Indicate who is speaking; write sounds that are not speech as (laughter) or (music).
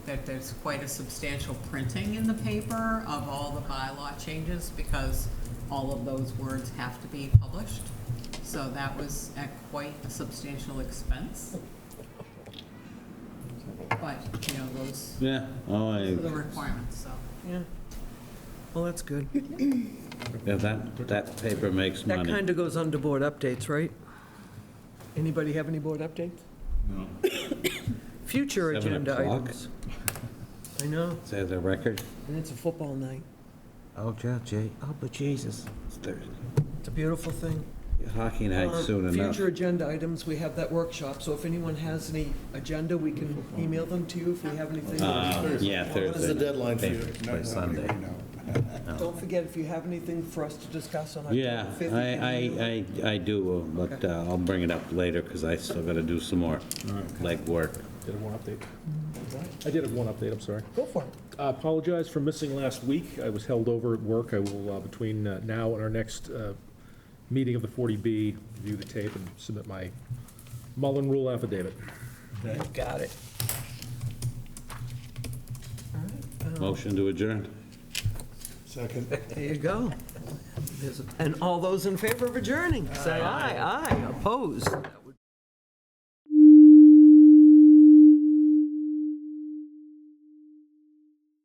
Speaker 1: that there's quite a substantial printing in the paper of all the bylaw changes because all of those words have to be published. So that was at quite a substantial expense. But, you know, those
Speaker 2: Yeah, oh, I,
Speaker 1: are the requirements, so.
Speaker 3: Yeah. Well, that's good.
Speaker 2: yeah, that, that paper makes
Speaker 3: That
Speaker 2: money.
Speaker 3: kind of goes under board updates, right? Anybody have any board updates? (coughs) Future
Speaker 2: Seven
Speaker 3: agenda
Speaker 2: o'clock?
Speaker 3: items. I know,
Speaker 2: Is that the record?
Speaker 3: and it's a football night.
Speaker 2: Oh, yeah, Jay, oh, but Jesus. It's Thursday.
Speaker 3: It's a beautiful thing.
Speaker 2: Hockey night
Speaker 3: Um,
Speaker 2: soon enough.
Speaker 3: Future agenda items, we have that workshop, so if anyone has any agenda, we can email them to you if we have anything.
Speaker 2: Uh, Yeah,
Speaker 4: What is the
Speaker 2: Thursday.
Speaker 4: deadline for you?
Speaker 2: Thursday,
Speaker 4: No,
Speaker 2: by Sunday.
Speaker 4: nobody would know.
Speaker 3: Don't forget, if you have anything for us to discuss on
Speaker 2: Yeah,
Speaker 3: October 5th.
Speaker 2: I, I, I, I do, uh, but uh, I'll bring it up later, because I still gotta do some more legwork.
Speaker 5: Did have one update. I did have one update, I'm sorry.
Speaker 3: Go for it.
Speaker 5: I apologize for missing last week. I was held over at work. I will, uh, between uh, now and our next uh, meeting of the 40B, review the tape and submit my Mullen Rule affidavit.
Speaker 3: Got it.
Speaker 2: Motion to adjourn.
Speaker 4: Second.
Speaker 3: There you go. There's a- And all those in favor of adjourning, say aye. Aye, opposed. That